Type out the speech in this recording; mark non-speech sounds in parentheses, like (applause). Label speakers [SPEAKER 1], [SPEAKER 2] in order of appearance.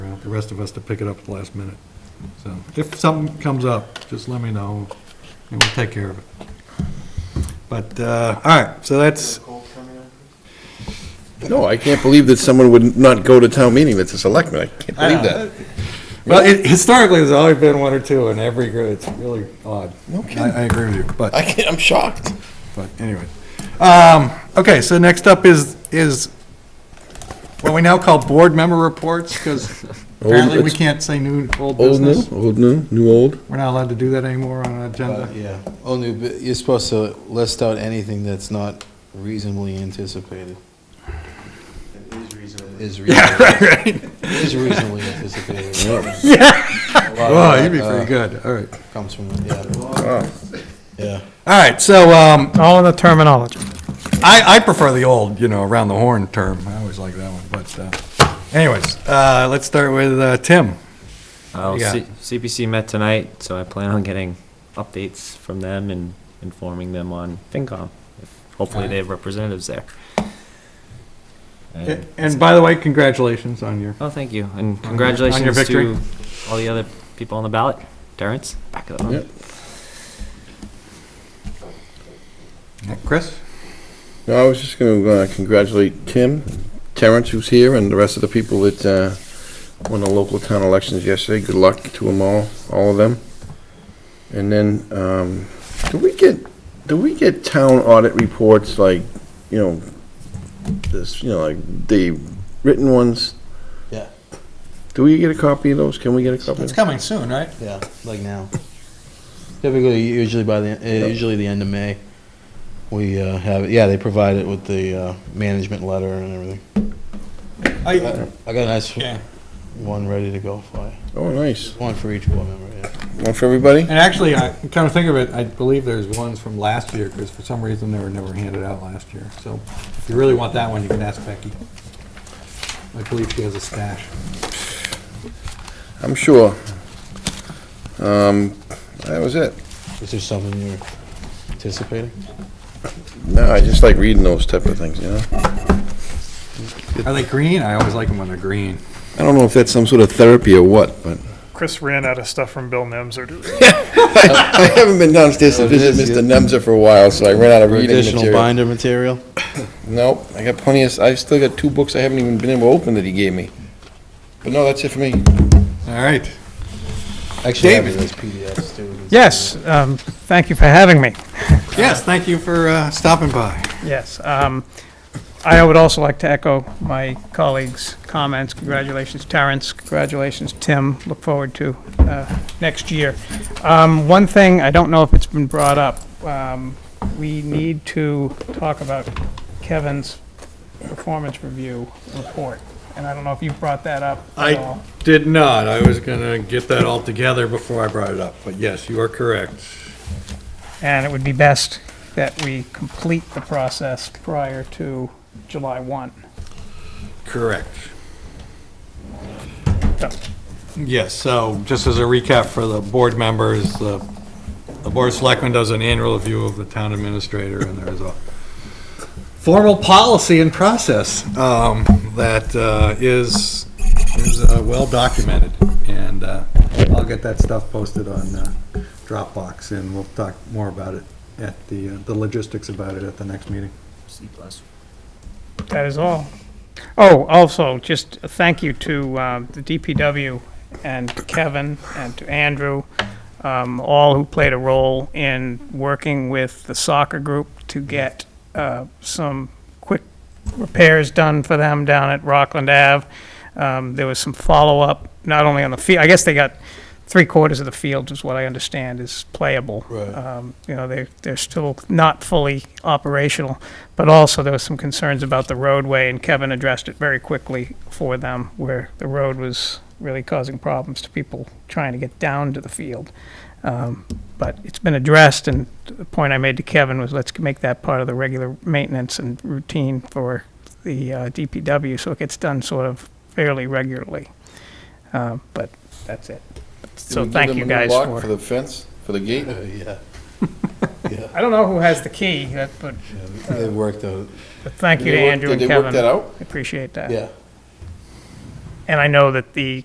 [SPEAKER 1] the rest of us to pick it up at the last minute. So if something comes up, just let me know, and we'll take care of it. But, uh, all right, so that's,
[SPEAKER 2] No, I can't believe that someone would not go to town meeting that's a selectman. I can't believe that.
[SPEAKER 1] uh, well, it- historically, there's always been one or two in every group. It's really odd.
[SPEAKER 2] No kidding.
[SPEAKER 1] I I agree with you, but.
[SPEAKER 2] I can't, I'm shocked.
[SPEAKER 1] But anyway, um, okay, so next up is, is what we now call board member reports,
[SPEAKER 2] (laughs)
[SPEAKER 1] because apparently we
[SPEAKER 2] it's-
[SPEAKER 1] can't say new, old
[SPEAKER 2] Old, new,
[SPEAKER 1] business.
[SPEAKER 2] old, new, new, old.
[SPEAKER 1] We're not allowed to do that anymore on an
[SPEAKER 2] Uh,
[SPEAKER 1] agenda.
[SPEAKER 3] Yeah, only, bu- Oh, you're supposed to list out anything that's not reasonably anticipated. Is reasonably. Is reasonably anticipated.
[SPEAKER 1] Oh, you'd be
[SPEAKER 2] uh,
[SPEAKER 1] pretty good, all right.
[SPEAKER 3] Comes from, yeah, yeah.
[SPEAKER 1] All right, so, um,
[SPEAKER 4] All in the terminology.
[SPEAKER 1] I, I prefer the old, you know, around the horn term. I always like that one, but, uh, anyways, uh, let's start with, uh, Tim.
[SPEAKER 5] Oh,
[SPEAKER 1] Yeah.
[SPEAKER 5] C- CPC met tonight, so I plan on getting updates from them and informing them on FinCom. If- Hopefully they have representatives there. And-
[SPEAKER 1] And by the way, congratulations on your,
[SPEAKER 5] Oh, thank you, and
[SPEAKER 1] on your
[SPEAKER 5] congratulations
[SPEAKER 1] victory.
[SPEAKER 5] to all the other people on the ballot. Terrence, back of the
[SPEAKER 2] Yep.
[SPEAKER 5] room.
[SPEAKER 1] Chris?
[SPEAKER 2] No, I was just going to congratulate Tim, Terrence, who's here, and the rest of the people that uh, won the local town elections yesterday. Good luck to them all, all of them. And then, um, do we get, do we get town audit reports like, you know, this, you know, like the written ones?
[SPEAKER 3] Yeah.
[SPEAKER 2] Do we get a copy of those? Can we get a copy?
[SPEAKER 1] It's coming soon, right?
[SPEAKER 3] Yeah, like now. Typically, usually by the, uh, usually the end of May, we uh, have, it. yeah, they provide it with the uh, management letter and everything.
[SPEAKER 1] I,
[SPEAKER 3] I got a nice
[SPEAKER 1] yeah.
[SPEAKER 3] one ready to go for you.
[SPEAKER 2] Oh, nice.
[SPEAKER 3] One for each board member, yeah.
[SPEAKER 2] One for everybody?
[SPEAKER 1] And actually, I kind of think of it, I believe there's ones from last year, because for some reason they were never handed out last year. So if you really want that one, you can ask Becky. I believe she has a stash.
[SPEAKER 2] I'm sure. Um, that was it.
[SPEAKER 3] Is there something you're anticipating?
[SPEAKER 2] No, I just like reading those type of things, you know?
[SPEAKER 1] Are they green? I always like them when they're green.
[SPEAKER 2] I don't know if that's some sort of therapy or what, but (laughs)
[SPEAKER 4] Chris ran out of stuff from Bill Nemser to
[SPEAKER 2] I haven't been downstairs to
[SPEAKER 3] Oh,
[SPEAKER 2] visit
[SPEAKER 3] this is
[SPEAKER 2] Mr. Nemza for a while, so I ran out of reading
[SPEAKER 3] Additional
[SPEAKER 2] material.
[SPEAKER 3] binder material?
[SPEAKER 2] Nope, I got plenty of, I still got two books I haven't even been able to open that he gave me. But no, that's it for me.
[SPEAKER 1] All right.
[SPEAKER 3] Actually, I have
[SPEAKER 1] David.
[SPEAKER 3] those PDFs too.
[SPEAKER 4] Yes, um, thank you for having me.
[SPEAKER 1] Yes, thank you for uh, stopping by.
[SPEAKER 4] Yes. um, I would also like to echo my colleagues' comments. Congratulations, Terrence. Congratulations, Tim. Look forward to uh, next year. Um, One thing, I don't know if it's been brought up, um, we need to talk about Kevin's performance review report. And I don't know if you brought that up at all.
[SPEAKER 1] I did not. I was going to get that all together before I brought it up, but yes, you are correct.
[SPEAKER 4] And it would be best that we complete the process prior to July 1.
[SPEAKER 1] Correct.
[SPEAKER 4] So,
[SPEAKER 1] Yes, so just as a recap for the board members, the the Board of Selectmen does an annual review of the town administrator, and there is a formal policy and process um, that uh, is, is uh, well documented. And uh, I'll get that stuff posted on uh, Dropbox, and we'll talk more about it at the, uh, the logistics about it at the next meeting.
[SPEAKER 5] C plus.
[SPEAKER 4] That is all. Oh, also, just a thank you to um, the DPW and to Kevin and to Andrew, um, all who played a role in working with the soccer group to get uh, some quick repairs done for them down at Rockland Ave. Um, There was some follow-up, not only on the field, I guess they got three quarters of the field is what I understand is playable.
[SPEAKER 3] Right.
[SPEAKER 4] Um, You know, they're, they're still not fully operational, but also there was some concerns about the roadway, and Kevin addressed it very quickly for them, where the road was really causing problems to people trying to get down to the field. Um, But it's been addressed, and the point I made to Kevin was let's make that part of the regular maintenance and routine for the uh, DPW, so it gets done sort of fairly regularly. Uh, But that's it. So thank you guys
[SPEAKER 2] For
[SPEAKER 4] for,
[SPEAKER 2] the fence, for the gate?
[SPEAKER 3] Uh, (laughs) Yeah.
[SPEAKER 4] I don't know who has the key, that- but
[SPEAKER 3] Yeah, They worked out,
[SPEAKER 4] but thank you to Andrew and
[SPEAKER 2] Did they work that
[SPEAKER 4] Kevin.
[SPEAKER 2] out?
[SPEAKER 4] Appreciate that.
[SPEAKER 3] yeah.
[SPEAKER 4] And I know that the